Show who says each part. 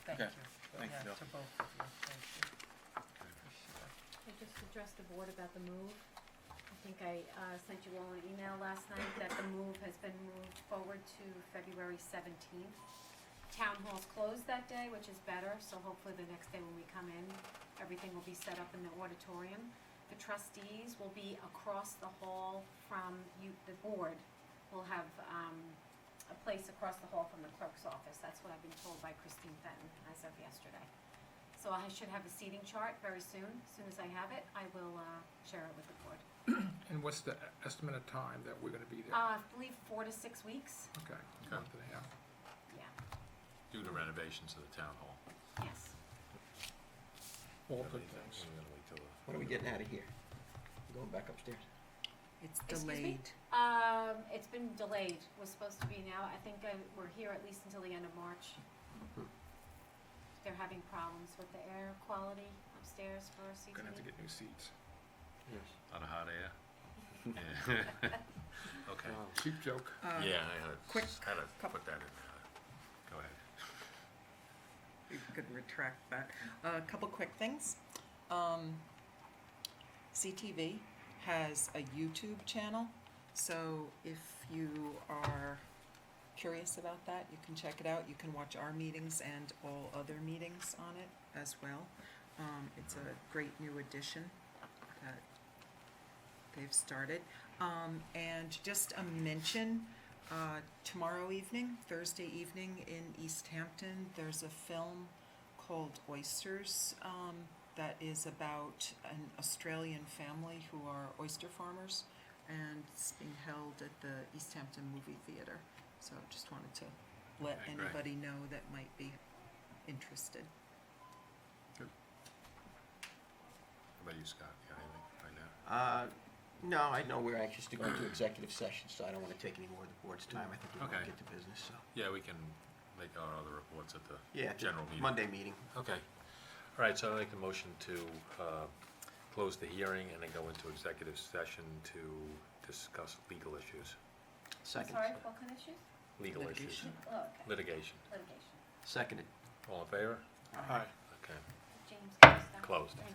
Speaker 1: Okay, thank you,
Speaker 2: Yeah,
Speaker 1: Bill.
Speaker 2: to both of you, thank you. Appreciate it.
Speaker 3: I just addressed the board about the move. I think I uh, sent you all an email last night that the move has been moved forward to February 17th. Town hall's closed that day, which is better, so hopefully the next day when we come in, everything will be set up in the auditorium. The trustees will be across the hall from you, the board will have um, a place across the hall from the clerk's office. That's what I've been told by Christine Fenton as of yesterday. So I should have a seating chart very soon. As soon as I have it, I will uh, share it with the board.
Speaker 4: And what's the estimate of time that we're gonna be there?
Speaker 3: Uh, I believe four to six weeks.
Speaker 4: Okay, month and a half.
Speaker 3: Yeah,
Speaker 5: Due to renovations of the town hall.
Speaker 3: yes.
Speaker 4: All good things.
Speaker 1: When are we getting out of here? We're Going back upstairs?
Speaker 6: It's
Speaker 3: Excuse me?
Speaker 6: delayed.
Speaker 3: Um, it's been delayed. Was supposed to be now. I think uh, we're here at least until the end of March.
Speaker 4: Hmm.
Speaker 3: They're having problems with the air quality upstairs for CTE.
Speaker 4: Gonna have to get new seats.
Speaker 1: Yes.
Speaker 5: On a hot air? Yeah. Okay.
Speaker 1: Um,
Speaker 4: Cheap joke.
Speaker 6: Uh,
Speaker 5: Yeah, I had,
Speaker 6: quick
Speaker 5: had to
Speaker 6: couple-
Speaker 5: put that in there. Go ahead.
Speaker 6: You could retract that. A couple quick things. Um, CTV has a YouTube channel, so if you are curious about that, you can check it out. You can watch our meetings and all other meetings on it as well. Um, it's a great new addition that they've started. Um, and just a mention, uh, tomorrow evening, Thursday evening in East Hampton, there's a film called Oysters um, that is about an Australian family who are oyster farmers, and it's being held at the East Hampton Movie Theater. So just wanted to let
Speaker 5: Okay, great.
Speaker 6: anybody know that might be interested.
Speaker 5: How about you, Scott? You got anything right now?
Speaker 1: Uh, no, I know we're anxious to go into executive session, so I don't wanna take any more of the board's time. I think we wanna
Speaker 5: Okay.
Speaker 1: get to business, so.
Speaker 5: Yeah, we can make our other reports at the
Speaker 1: Yeah, at the
Speaker 5: general meeting.
Speaker 1: Monday meeting.
Speaker 5: Okay. All right, so I make the motion to uh, close the hearing and then go into executive session to discuss legal issues.
Speaker 1: Second.
Speaker 3: Sorry, what kind of issues?
Speaker 5: Legal issues.
Speaker 6: Litigation.
Speaker 3: Oh, okay.
Speaker 5: Litigation.
Speaker 3: Litigation.
Speaker 1: Seconded.
Speaker 5: All in favor?
Speaker 4: Hi.
Speaker 5: Okay.
Speaker 3: James. can you stop?
Speaker 5: Closed.